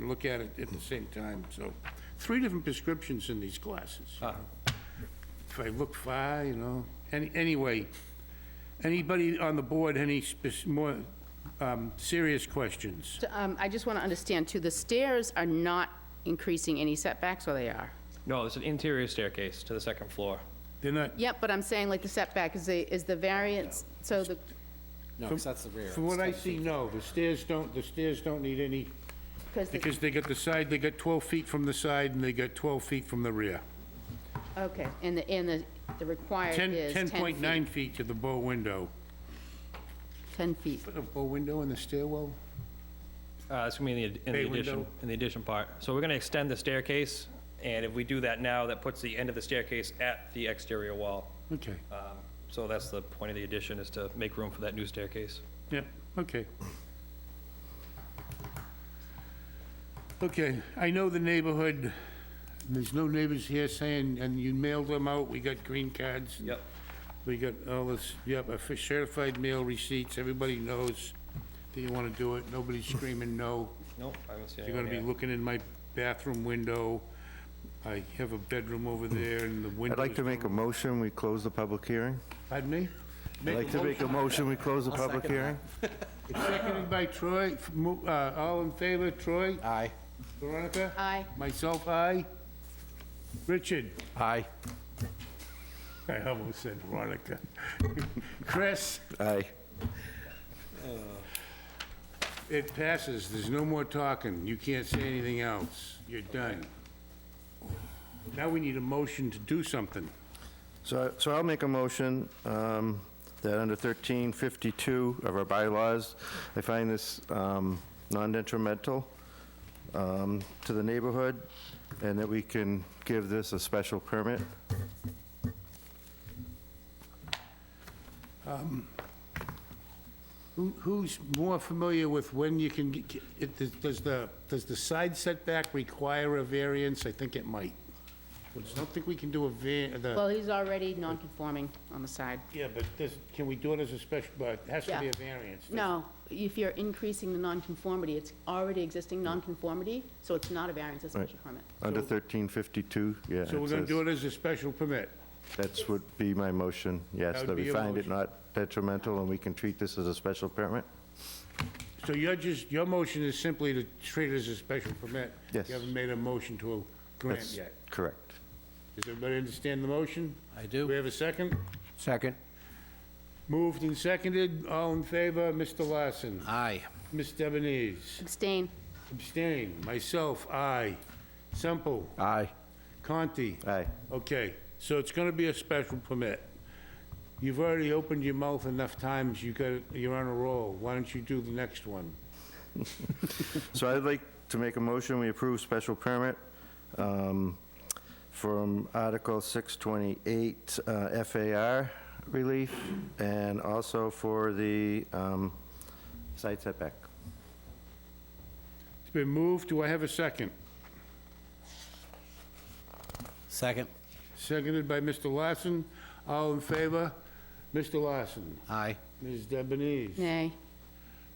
and look at it at the same time, so. Three different prescriptions in these glasses. you know. If I look far, you know, any, anyway, anybody on the board, any spec- more um, serious questions? So, um, I just want to understand too, the stairs are not increasing any setbacks, or they are? No, it's an interior staircase to the second floor. They're not, Yep, but I'm saying like the setback is the, is the variance, so the, No, because that's the rear. from what I see, no, the stairs don't, the stairs don't need any, because the, because they got the side, they got 12 feet from the side and they got 12 feet from the rear. okay, and the, and the the required 10, is 10 feet. 10.9 feet to the bow window. 10 feet. Put a bow window in the stairwell? Uh, it's gonna be in the, in Bay the addition, window. in the addition part. So we're gonna extend the staircase, and if we do that now, that puts the end of the staircase at the exterior wall. Okay, Um, So that's the point of the addition, is to make room for that new staircase. yeah, okay. Okay, I know the neighborhood, there's no neighbors here saying, and you mailed them out, we got green cards. and Yep. We got all this, yep, a fi- certified mail receipts, everybody knows that you want to do it, nobody's screaming no. Nope, I haven't seen You're gonna anyone be yet. looking in my bathroom window, I have a bedroom over there and the windows. I'd like to make a motion, we close the public hearing. Pardon me? I'd like to make a motion, we close the public hearing. Seconded by Troy, F- mo- uh, all in favor, Troy? Aye. Veronica? Aye. Myself, aye. Richard? Aye. I almost said Veronica. Chris? Aye. It passes, there's no more talking, you can't say anything else, you're done. Now we need a motion to do something. So, so I'll make a motion um, that under 1352 of our bylaws, I find this um, non-detrimental um, to the neighborhood, and that we can give this a special permit. Who- Who's more familiar with when you can, get- it- does the, does the side setback require a variance? I think it might. I don't think we can do a var, the... Well, he's already non-conforming on the side. Yeah, but this, can we do it as a special, but it has to be Yeah. a variance. No, if you're increasing the non-conformity, it's already existing non-conformity, so it's not a variance, it's a special permit. Under 1352, yeah. So we're gonna do it as a special permit. That's would be my motion, yes, That would that be we your find it motion. not detrimental, and we can treat this as a special permit. So you're just, your motion is simply to treat it as a special permit? Yes. You haven't made a motion to grant That's yet. Correct. Does everybody understand the motion? I Do do. we have a second? Second. Moved and seconded, all in favor, Mr. Larson? Aye. Ms. Debonese? Abstain. Abstain. Myself, aye. Semple? Aye. Conti? Aye. Okay, so it's gonna be a special permit. You've already opened your mouth enough times, you got, you're on a roll. Why don't you do the next one? So I'd like to make a motion, we approve special permit um, from Article 628 uh, FAR relief, and also for the um, side setback. It's been moved, do I have a second? Second. Seconded by Mr. Larson, all in favor? Mr. Larson, Aye. Ms. Debonese, Nay.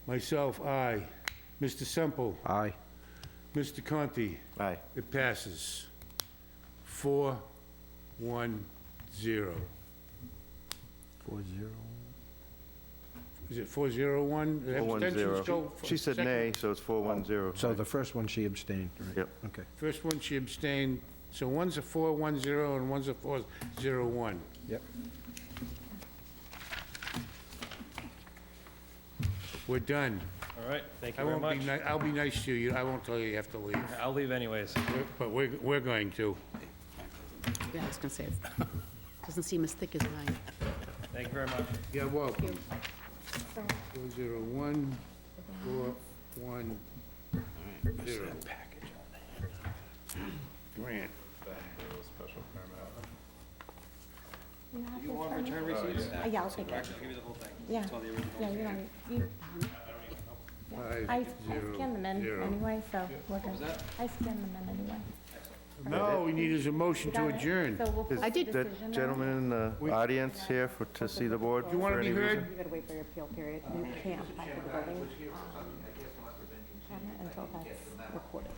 myself, aye. Mr. Semple, Aye. Mr. Conti, Aye. it passes. Four, one, zero. Four zero. Is it four zero one? 410. She said nay, so it's 410. So the first one, she abstained, right? Yep. Okay. First one, she abstained, so one's a 410 and one's a 401. Yep. We're done. All right, thank I you very won't much. be, ni- I'll be nice to you, I won't tell you you have to leave, I'll leave anyways. We're- but we're, we're going to. Yeah, I was gonna say, it doesn't seem as thick as mine. Thank you very much. Yeah, welcome. 401, 410. Grant. You want return receipts? Uh, Yeah, I'll take it. Yeah. Yeah, you don't, you, Five, I I zero, scanned them in zero. anyway, so we're good. I scanned them in anyway. No, we need is a motion to Got it? adjourn. So we'll put Is the did- decision on that it. gentleman in the audience here for, to see the board? You want for to be any reason? heard? You gotta wait for your appeal period, you can't back to the building. Cabinet Until that's recorded.